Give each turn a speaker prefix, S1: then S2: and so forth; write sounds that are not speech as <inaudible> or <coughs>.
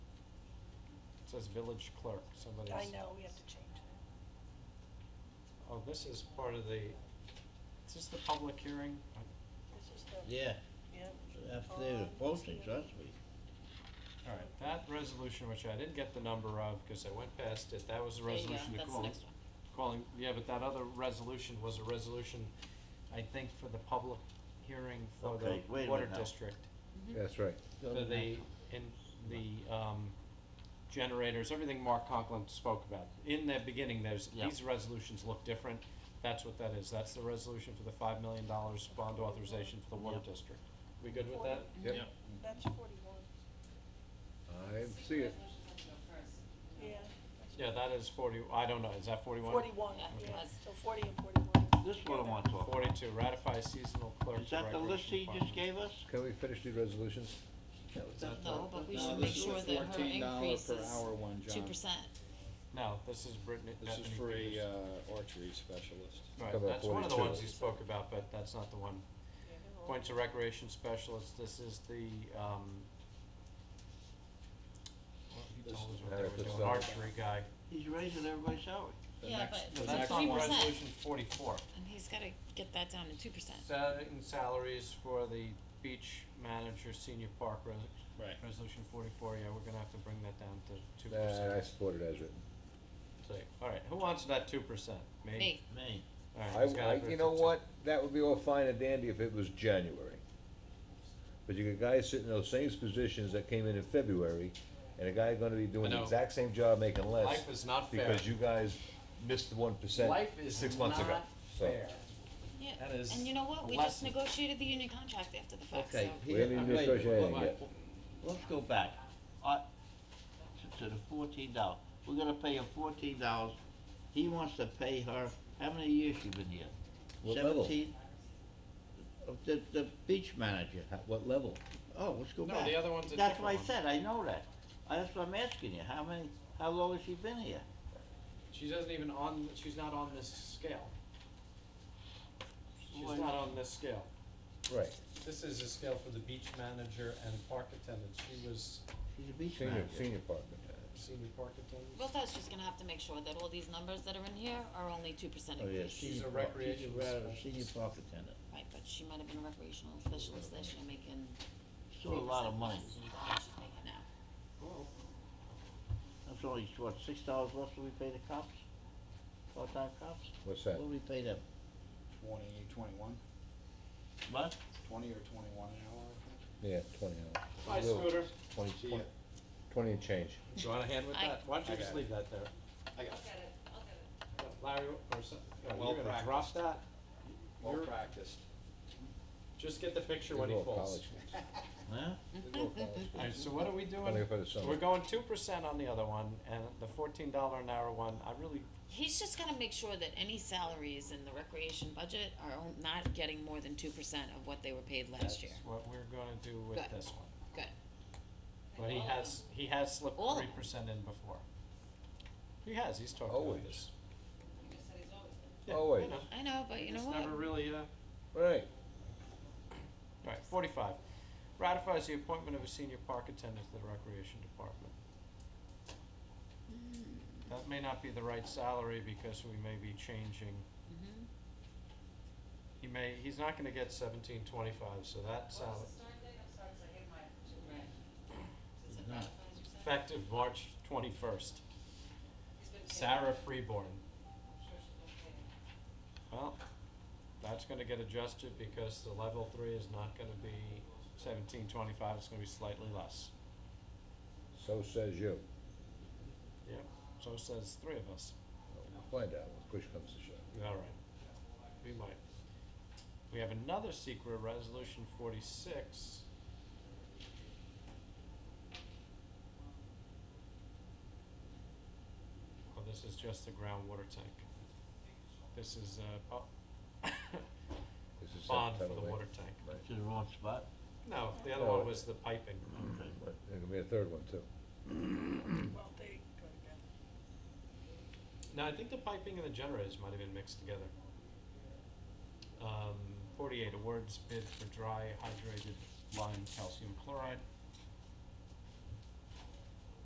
S1: says village clerk, somebody
S2: I
S1: else-
S2: know, we have to change it.
S1: Oh, this is part of the, is this the public hearing?
S2: This is the,
S3: Yeah,
S2: yeah.
S3: after the postings last week.
S1: All right, that resolution, which I didn't get the number of, because I went past it, that was the
S4: There you go,
S1: resolution to
S4: that's the
S1: call.
S4: next one.
S1: Calling, yeah, but that other resolution was a resolution, I think, for the public hearing for the
S3: Okay, wait a
S1: water
S3: minute now.
S1: district.
S5: That's right.
S3: Go
S1: For
S3: to
S1: the,
S3: next one.
S1: in, the, um, generators, everything Mark Conklin spoke about. In the beginning, there's,
S4: Yeah.
S1: these resolutions look different, that's what that is, that's the resolution for the five million dollars bond authorization for the water
S3: Yep.
S1: district. We good with that?
S5: Yep.
S2: That's forty-one,
S5: I see it.
S2: yeah.
S1: Yeah, that is forty, I don't know, is that forty-one?
S2: Forty-one,
S4: Yeah, it
S2: yeah,
S4: was.
S2: so forty and forty-one.
S3: This one I want to talk.
S1: Forty-two, ratify seasonal clerk.
S3: Is that the list he just gave us?
S5: Can we finish the resolutions?
S4: No, but we should make sure that her increase
S6: Uh, This is a fourteen dollar per hour
S4: is
S6: one,
S4: two
S6: John.
S4: percent.
S1: No, this is Brittany.
S6: This is
S1: Bethany
S6: for a,
S1: Peters.
S6: uh, archery specialist.
S1: Right,
S5: Cover
S1: that's one of the
S5: 42.
S1: ones you spoke about, but that's not the one. Points of Recreation Specialist, this is the, um, well, he
S6: This
S1: told us
S6: is-
S1: what they were
S5: Eric, this
S1: doing,
S5: is-
S1: archery guy.
S3: He's raising everybody's salary.
S6: The
S4: Yeah,
S6: next-
S4: but
S1: No,
S6: the
S1: that's
S6: next
S1: on
S4: three
S6: one-
S4: percent.
S1: Resolution forty-four.
S4: And he's gotta get that down to two percent.
S1: Setting salaries for the beach manager, senior park, res-
S6: Right.
S1: resolution forty-four, yeah, we're gonna have to bring that down to two percent.
S5: Nah, I support it as written.
S1: alright, who wants that two percent? Me?
S4: Me,
S3: Me.
S1: Alright,
S5: I,
S1: he's got
S5: I,
S1: it for
S5: you know
S1: 2%.
S5: what, that would be all fine and dandy if it was January. But you got guys sitting in those same positions that came in in February, and a guy gonna be doing
S1: I
S5: the
S1: know.
S5: exact same job making less.
S1: Life is not fair.
S5: Because you guys missed the one percent
S1: Life is
S5: six months ago,
S1: not
S5: so.
S1: fair.
S4: yeah.
S1: That is
S4: And you know what? We just
S1: lesson.
S4: negotiated the union contract after the fact, so.
S3: Okay,
S5: We haven't
S3: here,
S5: even
S3: wait,
S5: negotiated
S3: wait,
S5: anything
S3: wait.
S5: yet.
S3: Let's go back. I, to- to the fourteen dollars. We're gonna pay him fourteen dollars. He wants to pay her, how many years she been here?
S5: What level?
S3: Seventeen? Uh, The, the beach manager.
S5: At what level?
S3: Oh, let's go
S1: No,
S3: back.
S1: the other one's a
S3: That's what I
S1: different
S3: said, I know that. I- That's what I'm asking you. How many, how long has she been here?
S1: She doesn't even on, she's not on this scale. She's
S3: Why
S1: not
S3: not?
S1: on this scale.
S5: Right,
S1: This is a scale for the beach manager and park attendant. She was
S3: She's a beach
S5: senior,
S3: manager.
S5: senior partner.
S1: senior park attendant.
S4: Wiltau's just gonna have to make sure that all these numbers that are in here are only two percent
S3: Oh, yeah,
S4: increase.
S1: She's
S3: senior
S1: a
S3: park-
S1: recreation
S3: She's a rather
S1: specialist.
S3: senior park attendant.
S4: Right, but she might have been a recreational specialist last year making
S3: Still a lot of
S4: 3%
S3: money.
S4: less than what she's making now.
S3: That's only, what, six dollars less than we pay the cops? Part-time cops?
S5: What's
S3: What
S5: that?
S3: do we pay them?
S6: Twenty, twenty-one,
S3: What?
S6: twenty or twenty-one an hour, I think.
S5: Yeah, twenty hours.
S1: Hi,
S5: Little-
S1: Scooter.
S5: Twenty,
S6: See
S5: twenty,
S6: ya.
S5: twenty and change.
S1: Do you want a hand with
S4: I-
S1: that? Why don't you
S6: I
S1: just
S6: got it.
S1: leave that there?
S6: I got,
S1: Yeah, Larry, or some, no,
S6: Well
S1: you're gonna drop
S6: practiced.
S1: that?
S6: well
S1: You're-
S6: practiced.
S1: Just get the picture
S5: These
S1: when
S5: are
S1: he
S5: all
S1: falls.
S5: college kids.
S1: <laughs>
S3: Huh?
S5: These
S6: Mm-hmm.
S5: are all college kids.
S1: Alright, so what are we doing?
S5: Only for the summer.
S1: We're going two percent on the other one and the fourteen dollar an hour one, I really,
S4: He's just gonna make sure that any salaries in the recreation budget are on- not getting more than two percent of what they were paid
S1: that's
S4: last year.
S1: what we're gonna do with
S4: Good.
S1: this one.
S4: Good.
S1: But he has, he has slipped
S4: All of
S1: three
S4: them.
S1: percent in before. He has, he's talked
S5: Always.
S1: about this. Yeah, I
S5: Always.
S1: know.
S4: I know, but you know
S1: It's
S4: what?
S1: never really, uh,
S5: Right.
S1: alright, forty-five, ratifies the appointment of a senior park attendant to the recreation department. That may not be the right salary because we may be changing,
S4: Mhm.
S1: he may, he's not gonna get seventeen twenty-five, so that salary, effective March twenty-first. Sarah Freeborn. Well, that's gonna get adjusted because the level three is not gonna be seventeen twenty-five, it's gonna be slightly less.
S5: So says you.
S1: Yep, so says three of us.
S5: We'll find out when push comes to shove.
S1: All right, we might. We have another secret resolution forty-six. Oh, this is just the groundwater tank. This is a, <coughs> oh,
S5: This is
S1: bond for
S5: September,
S1: the
S5: right?
S1: water tank.
S3: That's the wrong spot.
S1: No, the other
S5: No.
S1: one was the piping.
S3: Okay.
S5: Right, There's gonna be a third one too.
S2: Well, there you go again.
S1: No, I think the piping and the generators might have been mixed together. Um, forty-eight awards bid for dry hydrated lime calcium chloride.